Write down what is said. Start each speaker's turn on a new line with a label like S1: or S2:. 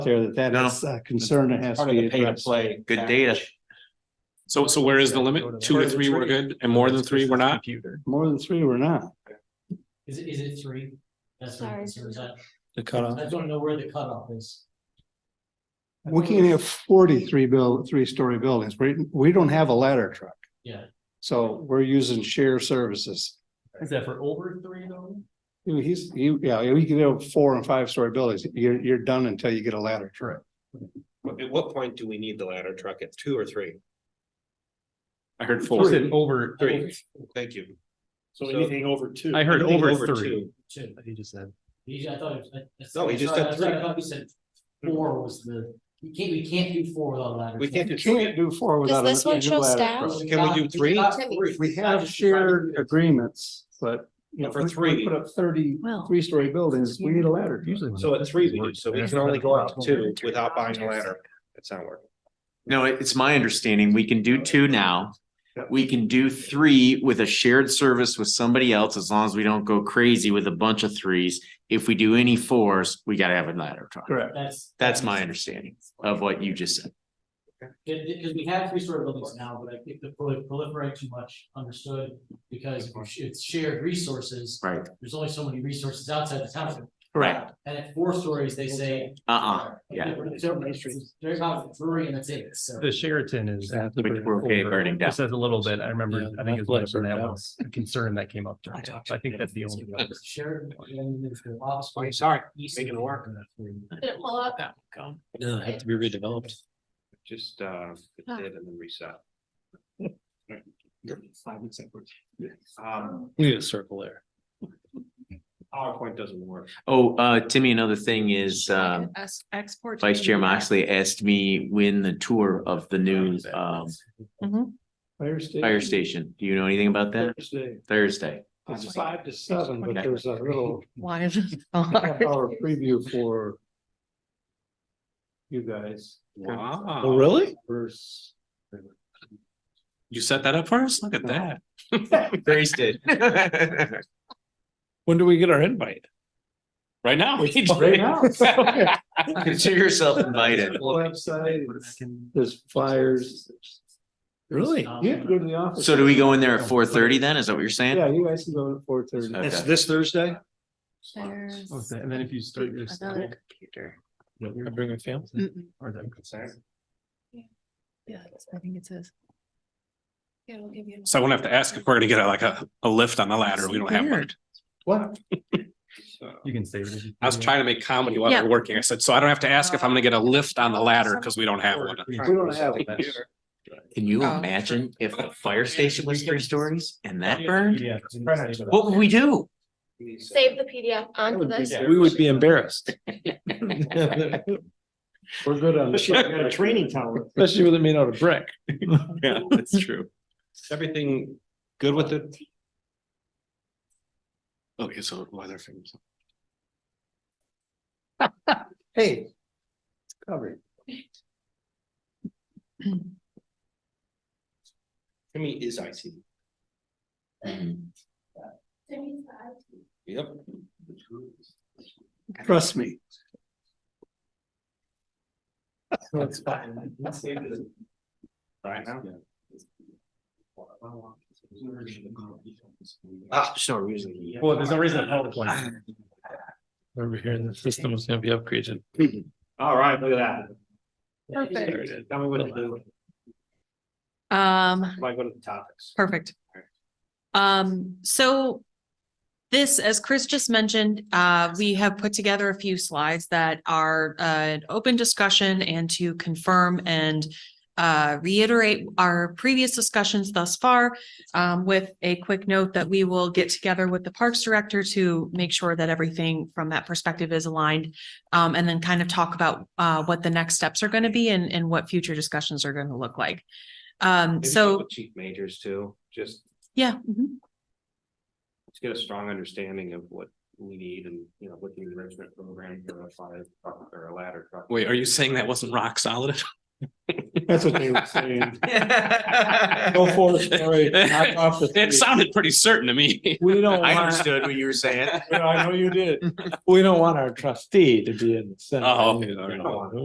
S1: there that that
S2: No.
S1: is a concern that has to
S3: Part of
S1: be
S3: the pay to
S1: addressed.
S3: play.
S2: Good data.
S4: So, so where is the
S1: Go to
S4: limit? Two
S1: the-
S4: to three, we're good, and more than three, we're not?
S1: More than three or not.
S5: Is it, is it three? That's what I'm
S6: Sorry.
S5: concerned about.
S4: The
S5: I don't know where the cutoff is.
S1: We can't have forty-three build, three-story buildings. We, we don't have a ladder truck.
S5: Yeah.
S1: So we're using share services.
S5: Is that for over three though?
S1: You know, He's, you, yeah, you can have four and five-story buildings. You're, you're done until you get a ladder truck.
S3: At what point do we need the ladder truck? At two or three?
S4: I heard
S7: You
S4: four.
S7: said over three.
S3: Thank you.
S7: So
S3: anything
S7: over two. I heard
S3: Anything
S7: over three.
S3: two.
S5: Two.
S7: He just said.
S5: He, I thought. it was- I-
S3: No, he just
S5: I- I-
S3: said
S5: I- I
S3: three.
S5: thought he said four was the, you can't, we can't do four without a ladder.
S3: We can't
S1: You
S3: do
S1: can't
S3: three.
S1: do four without. a
S6: this one
S1: new
S6: show
S1: ladder
S6: staff?
S1: truck.
S3: Can we do three?
S1: We have shared agreements, but. you know,
S3: For
S1: if we- we
S3: three.
S1: Put up thirty,
S6: Well.
S1: three-story buildings, we need a ladder. truck.
S3: So at three we do, so we can only go up two without buying a ladder. That's not working.
S2: No, it- it's my understanding, we can do two now. We can do three with a shared service with somebody else, as long as we don't go crazy with a bunch of threes. If we do any fours, we gotta have a ladder truck.
S1: Correct.
S5: That's.
S2: That's my understanding of what you just said.
S5: Because we have three story buildings now, but I think the prol- proliferate too much, understood, because if it's- it's shared resources.
S2: Right.
S5: There's only so many resources outside the township.
S2: Right.
S5: And at four stories, they say.
S2: Uh-uh, yeah.
S5: There's about three and that's it, so.
S7: The Sheraton is.
S2: Which we're okay burning down.
S7: It says a little bit. I remember, I think it was mentioned that was a concern that came up. during
S5: I
S7: it.
S5: talked
S7: So I think that's the only. one.
S5: Shared. and there's the office
S3: Oh,
S5: space.
S3: sorry.
S5: East
S3: Making it work.
S6: No, have to be redeveloped.
S3: Just uh, it
S6: Ah.
S3: did and then reset.
S1: Five and separate.
S3: Um,
S7: We need a circle there.
S3: PowerPoint doesn't work.
S2: Oh, uh, Timmy, another thing is, um,
S6: Export.
S2: Vice Chair Moxley asked me when the tour of the new, um,
S1: Fire station.
S2: fire station. Do you know anything about that?
S1: Thursday.
S2: Thursday.
S1: It's five to seven, but
S2: Okay.
S1: there's a little
S6: Why is it?
S1: half-hour preview for you guys. Oh,
S2: Oh,
S1: Uh,
S3: Wow.
S7: really?
S1: Verse.
S4: You set that up for us? Look at that.
S2: Thursday.
S7: When do we get our invite?
S4: Right now.
S1: Right now.
S2: Consider yourself invited.
S1: Website, there's flyers.
S7: Really?
S1: You have to go to the office.
S2: So do we go in there at four thirty then? Is that what you're saying?
S1: Yeah, you guys can go at four thirty.
S2: Okay. It's
S1: this Thursday? Oh,
S7: Okay, And then if you start your.
S6: computer.
S7: Bring a family.
S6: Mm-mm.
S7: Or them.
S6: Yeah, that's- I think it says. Yeah, we'll give you.
S4: So I won't have to ask if we're gonna get a- like a, a lift on the ladder. We don't have one.
S6: Weird.
S1: What?
S7: You can save it.
S4: I was trying to make comedy while
S6: Yeah.
S4: we're working. I said, so I don't have to ask if I'm gonna get a lift on the ladder because we don't have one.
S1: We don't have. it.
S2: Can you
S6: Oh.
S2: imagine if the fire station was three stories and that burned?
S7: Yeah.
S2: What would we do?
S8: Save the PDF onto this.
S7: We would be embarrassed,
S1: We're good on.
S3: got a training
S1: tower.
S7: especially with it made out of brick.
S4: Yeah, that's true.
S3: Everything good with it?
S4: Okay, so weather things.
S1: Hey. Covered.
S3: I mean, is IT.
S2: Mm-hmm.
S3: Yep.
S1: Trust me.
S3: Right now. Ah, there's no reason.
S7: Well, there's no reason a PowerPoint. Over here, the system is gonna be upgraded.
S3: All right, look at that.
S6: Perfect.
S3: There it is. Tell me what to do.
S6: Um,
S3: Am I going to the topics?
S6: perfect. Um, so this, as Chris just mentioned, uh, we have put together a few slides that are uh, an open discussion and to confirm and uh, reiterate our previous discussions thus far, um, with a quick note that we will get together with the Parks Director to make sure that everything from that perspective is aligned. um, and then kind of talk about, uh, what the next steps are going to be and, and what future discussions are going to look like. Um,
S3: Maybe
S6: so,
S3: with Chief majors too, just
S6: yeah. mhm.
S3: to get a strong understanding of what we need and, you know, what the enrichment program for a fire truck or a ladder truck.
S4: Wait, are you saying that wasn't rock solid?
S9: That's what they were saying.
S10: I
S4: Go for it, sorry. Knock off the three.
S3: It sounded pretty certain to me.
S4: We don't want,
S10: understood what you were saying.
S4: I know you did. We don't want our trustee to be in the. Senate.
S3: Oh,
S4: You
S3: okay, all right.
S4: know,